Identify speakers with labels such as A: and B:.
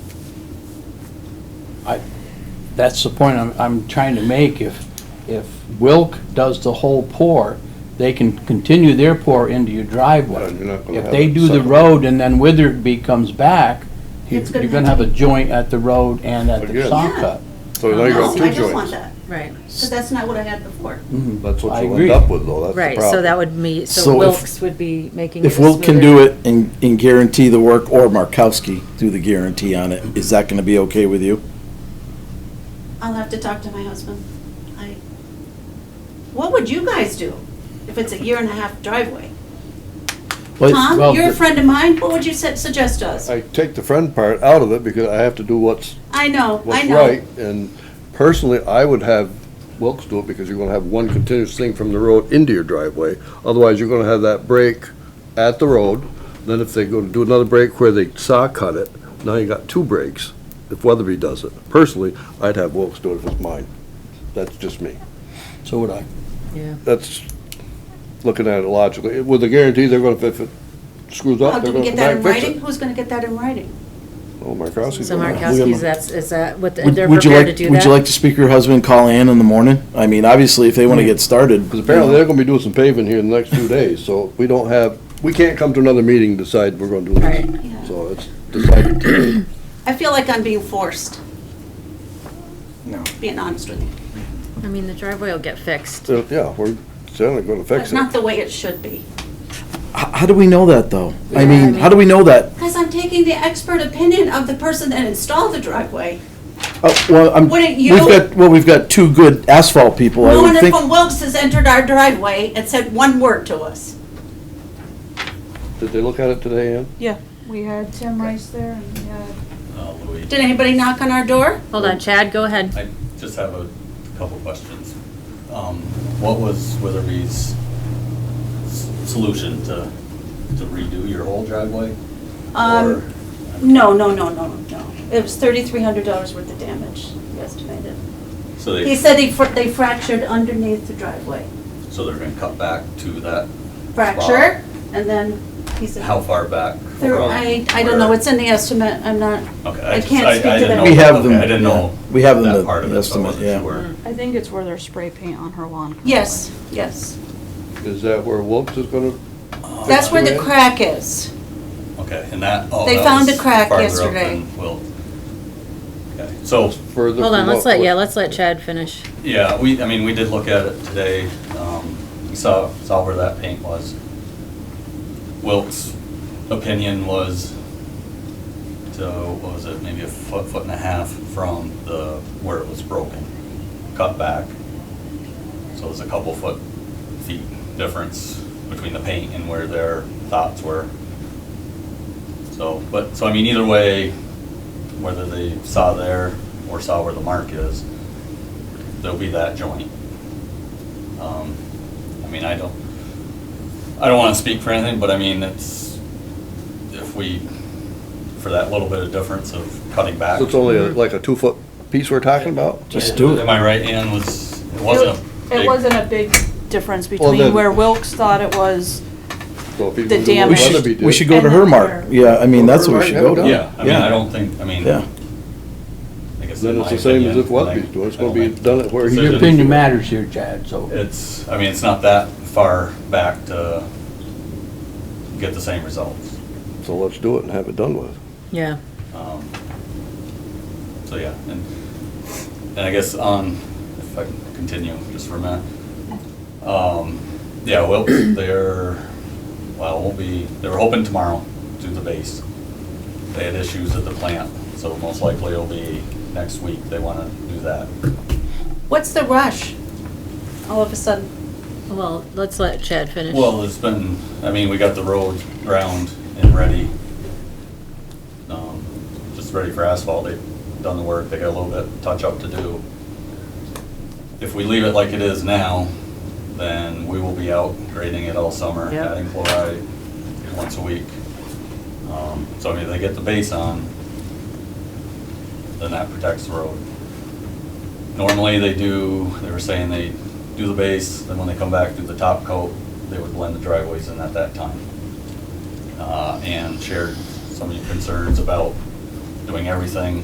A: I, that's the point I'm, I'm trying to make. If, if Wilk does the whole pour, they can continue their pour into your
B: No,
A: driveway.
B: you're not gonna
A: If
B: have
A: they
B: it
A: do the
B: separate.
A: road and then Witherby comes back, you're
C: It's gonna
A: gonna have
C: have
A: a joint at the road and at the
B: Again.
A: saw
C: Yeah.
A: cut.
B: So now you
C: No,
B: got
C: I
B: two
C: don't want
B: joints.
C: that,
D: Right,
C: because that's not what I had before.
B: That's
A: I
B: what you'll
A: agree.
B: end up with though, that's the
D: right, so
B: problem.
D: that would mean,
E: So
D: so
E: if-
D: Wilks would be making it
E: If Wilk can
D: smoother.
E: do it and, and guarantee the work, or Markowski do the guarantee on it, is that gonna be okay with you?
C: I'll have to talk to my husband. I, what would you guys do if it's a year and a half driveway?
A: But- well,
C: Tom, you're a
A: the-
C: friend of mine, what would you su- suggest to us?
B: I take the friend part out of it because I have to do what's,
C: I know, I
B: what's right.
C: know.
B: And personally, I would have Wilks do it because you're gonna have one continuous thing from the road into your driveway. Otherwise, you're gonna have that break at the road. Then if they go to do another break where they saw cut it, now you got two breaks if Weatherby does it. Personally, I'd have Wilks do it if it's mine. That's just me.
A: So would I.
D: Yeah.
B: That's looking at it logically. With the guarantee they're gonna, if it screws
C: How
B: up, they're
C: do
B: gonna
C: we
B: come
C: Oh, get that
B: back
C: in
B: and fix
C: writing?
B: it.
C: Who's gonna get that in writing?
B: Oh, Markowski's
D: So
B: gonna-
E: William-
D: Markowski's, that's, is that, what,
E: Would
D: they're
E: would you
D: prepared to
E: like,
D: do that?
E: would you like to speak to your husband, call Ann in the morning? I mean, obviously, if they wanna get started.
B: Because apparently they're gonna be doing some paving here in the next few days, so we don't have, we can't come to another meeting and decide we're gonna do
D: Right.
B: this. So it's decided today.
C: I feel like I'm being forced,
E: No.
C: being honest with you.
D: I mean, the driveway will get fixed.
B: So, yeah, we're certainly gonna fix
C: That's
B: it.
C: not the way it should be.
E: How, how do we know that, though? I
D: Yeah,
E: mean, how do we know that?
C: Because I'm taking the expert opinion of the person that installed the driveway.
E: Uh, well, I'm,
C: Wouldn't
E: we've
C: you-
E: got, well, we've got two good asphalt people, I
C: No one
E: would think.
C: from Wilkes has entered our driveway and said one word to us.
B: Did they look at it today, Ann?
F: Yeah, we had Tim Rice there and we had
G: Uh, Louis,
C: Did anybody knock on our door?
D: Hold on, Chad, go ahead.
G: I just have a couple questions. Um, What was Witherby's s- solution to to redo your whole driveway?
C: Um,
G: Or-
C: No, no, no, no, no. It was thirty-three hundred dollars worth of damage he estimated.
G: So
C: He
G: they,
C: said he fr- they fractured underneath the driveway.
G: so they're gonna cut back to that,
C: Fracture, and then he said.
G: how far back?
C: There-
G: from
C: I, I don't know,
G: where-
C: it's in the estimate, I'm not,
G: Okay,
C: I
G: just-
C: can't speak
G: I
C: to
G: didn't
C: that.
G: know-
E: We have
G: okay,
E: them,
G: I didn't know.
E: yeah. We have them, the-
G: That part of
E: the
G: it, so
E: estimate,
G: I wasn't
E: yeah.
G: sure.
F: I think it's where their spray paint on her lawn.
C: yes, yes.
B: Is that where Wilkes is gonna,
C: That's where the
B: Okay.
C: crack is.
G: Okay, and that, oh,
C: They
G: that
C: found
G: was
C: a crack
G: farther up
C: yesterday.
G: than Wilt. Okay, so
B: further?
D: Hold on,
B: from
D: let's
B: what-
D: let, yeah, let's let Chad finish.
G: Yeah, we, I mean, we did look at it today. Um, We saw, saw where that paint was. Wilk's opinion was to, what was it, maybe a foot, foot and a half from the, where it was broken, cut back. So there's a couple foot, feet difference between the paint and where their thoughts were. So, but, so I mean, either way, whether they saw there or saw where the mark is, there'll be that joint. Um, I mean, I don't, I don't wanna speak for anything, but I mean, it's, if we, for that little bit of difference of cutting back.
B: So it's only
E: Mm-hmm.
B: a- like a two-foot piece we're talking about?
E: Just do it.
G: Am I right, Ann, was, it wasn't a big-
F: It wasn't a big difference
B: then-
F: between where Wilkes thought it was.
B: So if he
F: The
B: was doing what
E: We
F: damage.
E: should,
B: Weatherby did-
E: we should go to
F: And
E: her
F: then
E: mark.
F: her-
E: Yeah, I mean,
B: Well,
E: that's what
B: her
E: we should
B: mark,
E: go
B: yeah,
E: to.
G: Yeah, I mean, I don't think, I mean.
E: Yeah.
G: I guess
B: Then
G: in
B: it's
G: my
B: the same as
G: opinion,
B: if Weatherby's
G: like,
B: doing, it's
G: I
B: gonna
G: don't
B: be
G: make
B: done at where he-
A: Your
G: decisions.
A: opinion matters here, Chad, so.
G: It's, I mean, it's not that far back to get the same results.
B: So let's do it and have it done with.
D: Yeah,
G: Um, So, yeah, and, and I guess on, if I can continue just for a minute. Um, Yeah, well, they're, well, we'll be, they were hoping tomorrow to do the base. They had issues at the plant, so most likely it'll be next week they want to do that.
C: What's the rush? All of a sudden,
D: well, let's let Chad finish.
G: Well, it's been, I mean, we got the road ground and ready. Um, Just ready for asphalt. They've done the work. They got a little bit touch-up to do. If we leave it like it is now, then we will be out grading it all summer,
D: Yep.
G: adding chloride once a week. Um, So I mean, they get the base on, then that protects the road. Normally, they do, they were saying they do the base, then when they come back, do the top coat, they would blend the driveways in at that time. Uh, And shared some of your concerns about doing everything